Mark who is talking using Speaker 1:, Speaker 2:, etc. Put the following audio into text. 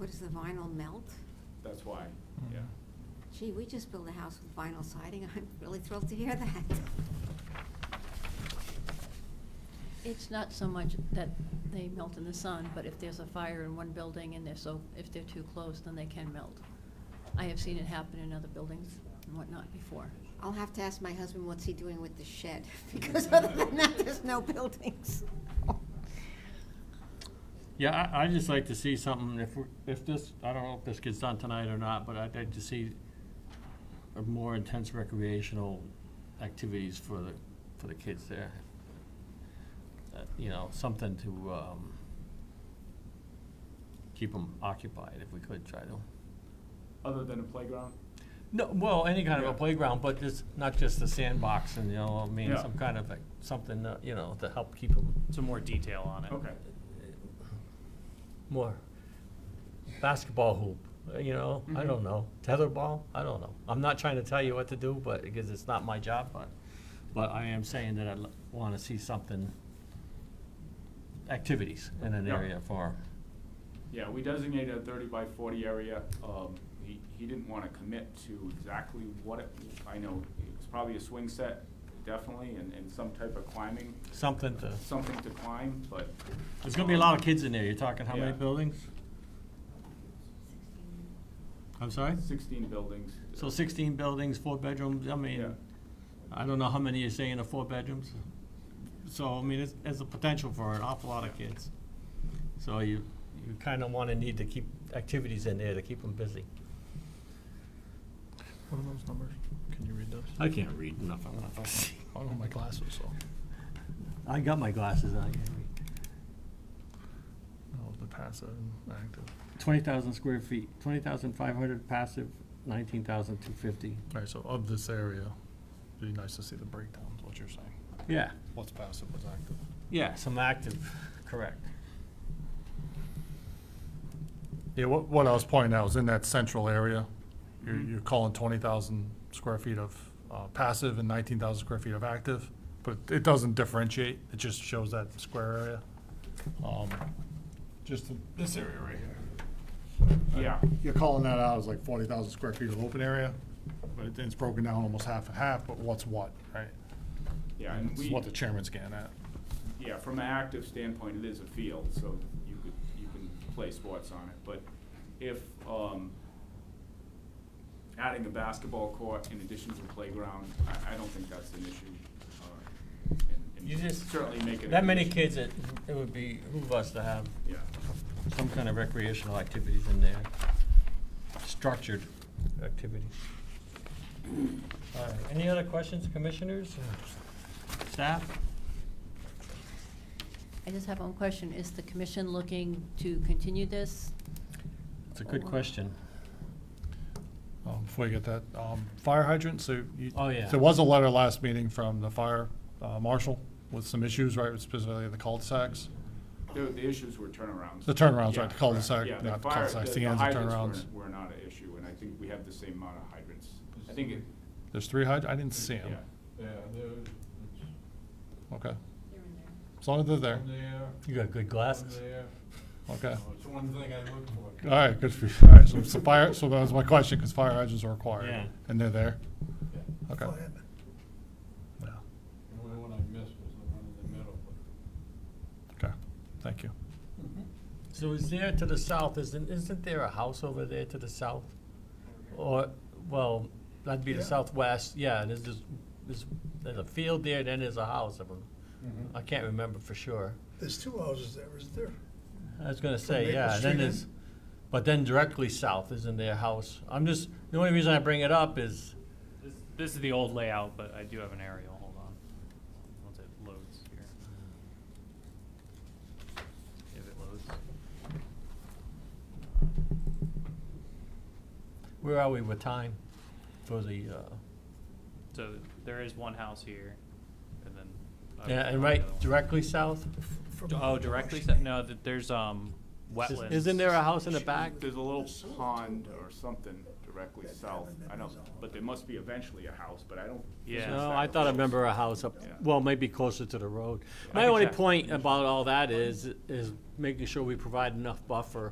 Speaker 1: does the vinyl melt?
Speaker 2: That's why,
Speaker 3: Mm-hmm.
Speaker 2: yeah.
Speaker 1: Gee, we just built a house with vinyl siding, I'm really thrilled to hear that.
Speaker 4: It's not so much that they melt in the sun, but if there's a fire in one building and they're so, if they're too close, then they can melt. I have seen it happen in other buildings and whatnot before.
Speaker 1: I'll have to ask my husband what's he doing with the shed, because other than that, there's no buildings.
Speaker 3: Yeah, I, I'd just like to see something, if, we- if this, I don't know if this gets done tonight or not, but I'd like to see a more intense recreational activities for the, for the kids there. Uh, You know, something to, um, keep them occupied if we could try to.
Speaker 2: Other than a playground?
Speaker 3: No, well, any kind of
Speaker 2: Yeah.
Speaker 3: a playground, but just, not just the sandbox and, you know, I mean,
Speaker 2: Yeah.
Speaker 3: some kind of, like, something, uh, you know, to help keep them
Speaker 5: Some more detail on it.
Speaker 2: Okay.
Speaker 3: more basketball hoop, uh, you know, I don't know, tetherball, I don't know. I'm not trying to tell you what to do, but, because it's not my job, but, but I am saying that I want to see something, activities in an
Speaker 2: Yeah.
Speaker 3: area for,
Speaker 2: Yeah, we designated a thirty by forty area. Um, he, he didn't wanna commit to exactly what it, I know, it was probably a swing set, definitely, and, and some type of climbing,
Speaker 3: something to,
Speaker 2: something to climb, but.
Speaker 3: there's gonna be a lot of kids in there, you're talking how many
Speaker 2: Yeah.
Speaker 3: buildings? I'm sorry?
Speaker 2: Sixteen buildings.
Speaker 3: So sixteen buildings, four bedrooms, I
Speaker 2: Yeah.
Speaker 3: mean, I don't know how many you're saying are four bedrooms. So, I mean, it's, it's a potential for an awful lot of kids. So you, you kinda wanna need to keep activities in there to keep them busy.
Speaker 6: What are those numbers? Can you read those?
Speaker 3: I can't read enough, I'm not see.
Speaker 6: I don't have my glasses, so.
Speaker 3: I got my glasses on, I can't read.
Speaker 6: No, the passive and active.
Speaker 3: Twenty thousand square feet, twenty thousand five hundred passive, nineteen thousand two fifty.
Speaker 6: All right, so of this area, it'd be nice to see the breakdown, is what you're saying.
Speaker 3: Yeah,
Speaker 6: What's passive, what's active?
Speaker 3: yeah, some active, correct.
Speaker 6: Yeah, what, what I was pointing out is in that central area, you're, you're calling twenty thousand square feet of, uh, passive and nineteen thousand square feet of active, but it doesn't differentiate, it just shows that square area. Um, just the- this area right here.
Speaker 2: Yeah,
Speaker 6: You're calling that out as like forty thousand square feet of open area, but it- it's broken down almost half and half, but what's what, right?
Speaker 2: yeah, and
Speaker 6: It's
Speaker 2: we.
Speaker 6: what the chairman's getting at.
Speaker 2: Yeah, from an active standpoint, it is a field, so you could, you can play sports on it, but if, um, adding a basketball court in addition to a playground, I, I don't think that's an issue. uh, and- and
Speaker 3: You just,
Speaker 2: Certainly make it. a
Speaker 3: that many
Speaker 2: condition.
Speaker 3: kids, it, it would be, who us to have
Speaker 2: Yeah,
Speaker 3: some kind of recreational activities in there, structured activities. All right, any other questions, commissioners, or staff?
Speaker 4: I just have one question. Is the commission looking to continue this?
Speaker 3: It's a good question.
Speaker 6: Um, Before you get that, um, fire hydrant, so you.
Speaker 3: Oh, yeah.
Speaker 6: There was a letter last meeting from the fire uh, marshal with some issues, right, specifically the cul-de-sacs.
Speaker 2: the, the issues were turnarounds.
Speaker 6: The turnarounds,
Speaker 2: Yeah,
Speaker 6: right, the cul-de-sac,
Speaker 2: correct. Yeah,
Speaker 6: not the
Speaker 2: fire-
Speaker 6: cul-de-sacs, the ends of
Speaker 2: hydrants
Speaker 6: turnarounds.
Speaker 2: were- Were not an issue, and I think we have the same amount of hydrants. I think it,
Speaker 6: There's three hyd, I didn't see them.
Speaker 7: Yeah,
Speaker 2: yeah.
Speaker 7: they're,
Speaker 6: Okay, as long as they're there,
Speaker 7: it's one there,
Speaker 3: You got good
Speaker 7: one
Speaker 3: glasses.
Speaker 7: there.
Speaker 6: okay.
Speaker 7: Oh, It's one thing I look for.
Speaker 6: All right, good for you. All right, so it's the fire, so that was my question, because fire hydrants are
Speaker 3: Yeah.
Speaker 6: required, and they're there,
Speaker 7: Yeah.
Speaker 6: okay. Yeah,
Speaker 7: The only one I missed was the one in the middle,
Speaker 6: okay, thank you.
Speaker 3: So is there to the south, isn't, isn't there a house over there to the south? Or, well, that'd be the
Speaker 7: Yeah.
Speaker 3: southwest, yeah, there's this, this, there's a field there, then there's a house, I don't-
Speaker 7: but.
Speaker 3: I can't remember for sure.
Speaker 8: There's two houses there, isn't there?
Speaker 3: I was gonna say,
Speaker 8: Maple
Speaker 3: yeah, and then
Speaker 8: Street in?
Speaker 3: there's, but then directly south is in their house. I'm just, the only reason I bring it up is,
Speaker 5: This, this is the old layout, but I do have an aerial. Hold on. Once it loads here. If it loads.
Speaker 3: where are we with time for the, uh,
Speaker 5: So there is one house here, and then. I
Speaker 3: yeah,
Speaker 5: would
Speaker 3: and
Speaker 5: call the
Speaker 3: right,
Speaker 5: other one.
Speaker 3: directly south?
Speaker 8: From-
Speaker 5: D- Oh, directly, se- no, th- there's, um, wetlands.
Speaker 3: Isn't there a house in the back?
Speaker 2: There's a little pond or something directly south, I don't, but there must be eventually a house, but I don't.
Speaker 5: Yeah.
Speaker 3: No, I thought I remember a house up,
Speaker 2: Yeah.
Speaker 3: well, maybe closer to the road.
Speaker 5: I
Speaker 3: My
Speaker 5: can
Speaker 3: only
Speaker 5: check.
Speaker 3: point about all that is, is making sure we provide enough buffer